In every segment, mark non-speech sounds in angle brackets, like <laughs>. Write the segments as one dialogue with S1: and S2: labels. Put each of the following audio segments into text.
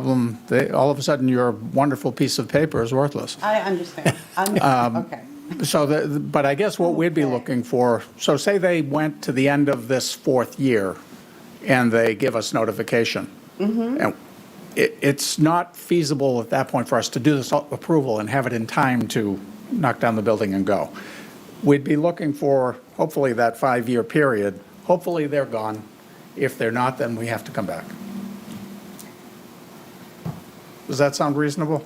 S1: problem, they, all of a sudden, your wonderful piece of paper is worthless.
S2: I understand. I'm, okay.
S1: So, the- but I guess what we'd be
S2: Okay.
S1: looking for, so say they went to the end of this fourth year and they give us notification. And It, it's not feasible at that point for us to do this approval and have it in time to knock down the building and go. We'd be looking for, hopefully, that five-year period. Hopefully, they're gone. If they're not, then we have to come back. Does that sound reasonable?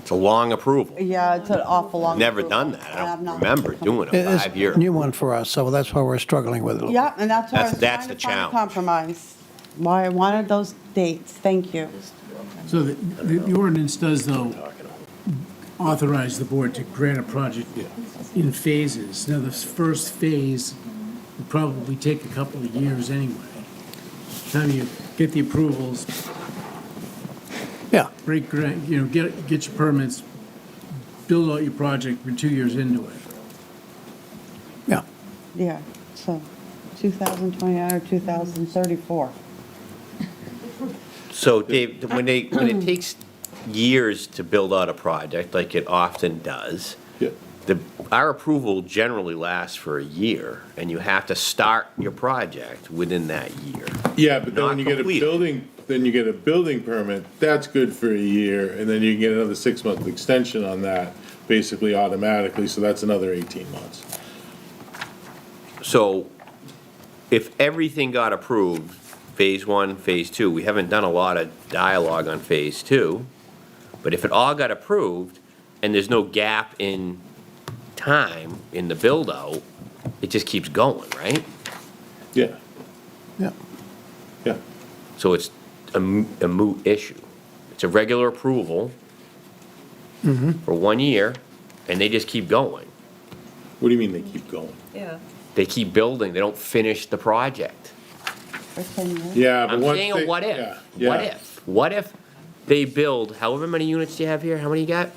S3: It's a long approval.
S2: Yeah, it's an awful long.
S3: Never
S2: approval,
S3: done that. I
S2: and I'm
S3: don't
S2: not-
S3: remember doing
S4: It
S3: a
S4: is
S3: five-year.
S4: a new one for us, so that's why we're struggling with it. a little
S2: Yeah, and that's why I
S3: That's-
S2: was
S3: that's
S2: trying
S3: the
S2: to find a
S3: challenge.
S2: compromise. Why I wanted those dates. Thank you.
S5: So the- the the ordinance does, though, authorize the board to grant a project in phases. Now, this first phase would probably take a couple of years anyway. Time you get the approvals,
S4: bit. Yeah,
S5: break, gra- you know, get, get your permits, build out your project, we're two years into it.
S4: yeah.
S2: Yeah, so 2029 or 2034.
S3: So Dave, when they, when it takes years to build out a project, like it often does, the, our approval generally lasts for a year, and you have to start your project within that year.
S6: Yeah, but then
S3: Not
S6: when you get a
S3: complete.
S6: building, then you get a building permit, that's good for a year, and then you can get another six-month extension on that, basically automatically, so that's another eighteen months.
S3: So if everything got approved, phase one, phase two, we haven't done a lot of dialogue on phase two, but if it all got approved and there's no gap in time in the build-out, it just keeps going, right?
S6: Yeah,
S4: Yeah.
S6: yeah.
S3: So it's a mo- a moot issue. It's a regular approval for one year, and they just keep going.
S6: What do you mean they keep going?
S7: Yeah.
S3: They keep building, they don't finish the project.
S2: For 10 years.
S6: Yeah, but
S3: I'm
S6: once
S3: saying
S6: they-
S3: a what
S6: yeah,
S3: if,
S6: yeah.
S3: what if, what if they build, however many units do you have here, how many you got?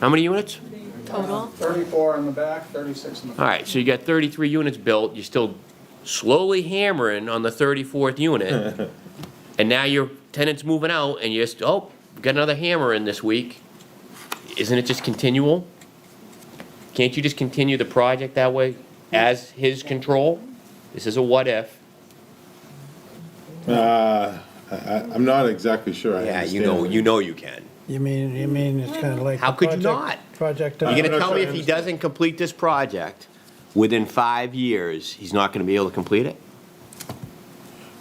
S3: How many units?
S7: Total?
S1: 34 in the back, 36 in the
S3: All right, so you got 33 units built, you're still slowly hammering on the 34th
S6: <laughs>
S3: unit, and now your tenant's moving out, and you're just, oh, got another hammer in this week. Isn't it just continual? Can't you just continue the project that way as his control? This is a what if.
S6: Uh, I, I- I'm not exactly sure I understand.
S3: know you can.
S4: You mean, you mean it's kind of like.
S3: How
S4: the
S3: could you
S4: project-
S3: not?
S4: Project.
S3: You're
S6: I'm
S3: gonna
S6: not
S3: tell
S6: sure
S3: me
S6: I
S3: if he
S6: understand.
S3: doesn't complete this project within five years, he's not gonna be able to complete it?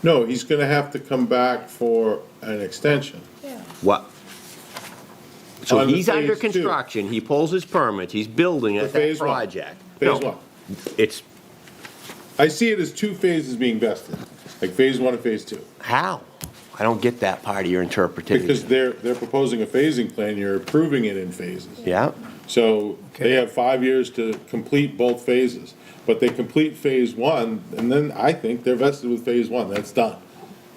S6: No, he's gonna have to come back for an extension.
S3: What? So
S6: On the
S3: he's under
S6: phase two.
S3: construction, he pulls his permit, he's building
S6: For
S3: at that
S6: phase one.
S3: project.
S6: Phase
S3: No,
S6: one.
S3: It's,
S6: I see it as two phases being vested, like phase one and phase two.
S3: how? I don't get that part of your interpretation.
S6: Because they're, they're proposing a phasing plan, you're approving it in phases.
S3: Yeah,
S6: So they
S4: Okay.
S6: have five years to complete both phases, but they complete phase one, and then I think they're vested with phase one, that's done.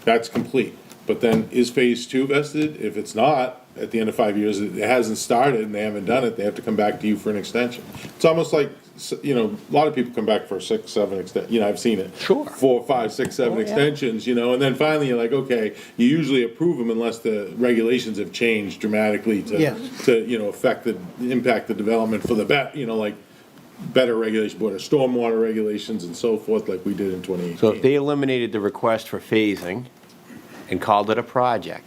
S6: That's complete. But then is phase two vested? If it's not, at the end of five years, it hasn't started and they haven't done it, they have to come back to you for an extension. It's almost like, s- you know, a lot of people come back for six, seven exten, you know, I've seen it.
S3: Sure. Oh,
S6: Four, five, six, seven extensions, you know, and then finally you're like, okay, you usually approve them unless the regulations have changed dramatically to
S4: Yes.
S6: to, you know, affect the, impact the development for the bet, you know, like better regulation, better stormwater regulations and so forth, like we did in twenty eighteen.
S3: so if they eliminated the request for phasing and called it a project,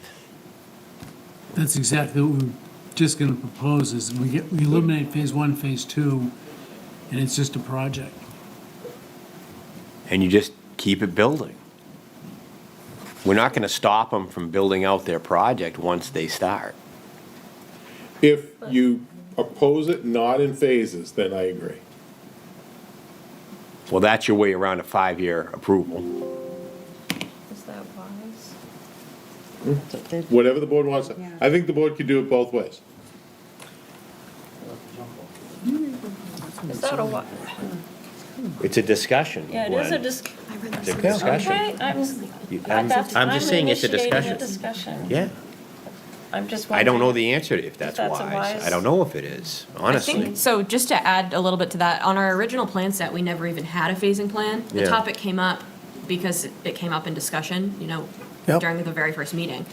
S5: That's exactly what we're just going to propose, is we get, we eliminate phase one, phase two, and it's just a project.
S3: and you just keep it building. We're not gonna stop them from building out their project once they start.
S6: If you oppose it not in phases, then I agree.
S3: Well, that's your way around a five-year approval.
S7: Is that wise?
S6: Whatever the board wants.
S2: Yeah.
S6: I think the board could do it both ways.
S3: Hmm.
S7: Is that a wise?
S3: It's a discussion.
S7: Yeah, it is a
S3: Gwen.
S7: dis-
S3: It's a discussion.
S7: Okay, I'm,
S3: You-
S7: I-
S3: I'm
S7: that's,
S3: I'm
S7: I'm
S3: just saying it's a
S7: initiating
S3: discussion.
S7: a discussion.
S3: Yeah,
S7: I'm just
S3: I don't know
S7: wondering.
S3: the answer to if that's
S7: that's a
S3: wise. I
S7: wise-
S3: don't know if it is,
S8: I
S3: honestly.
S8: think, so just to add a little bit to that, on our original plan set, we never even had a phasing plan. The
S3: Yeah.
S8: topic came up because it came up in discussion, you know,
S4: Yep.
S8: during the very first meeting.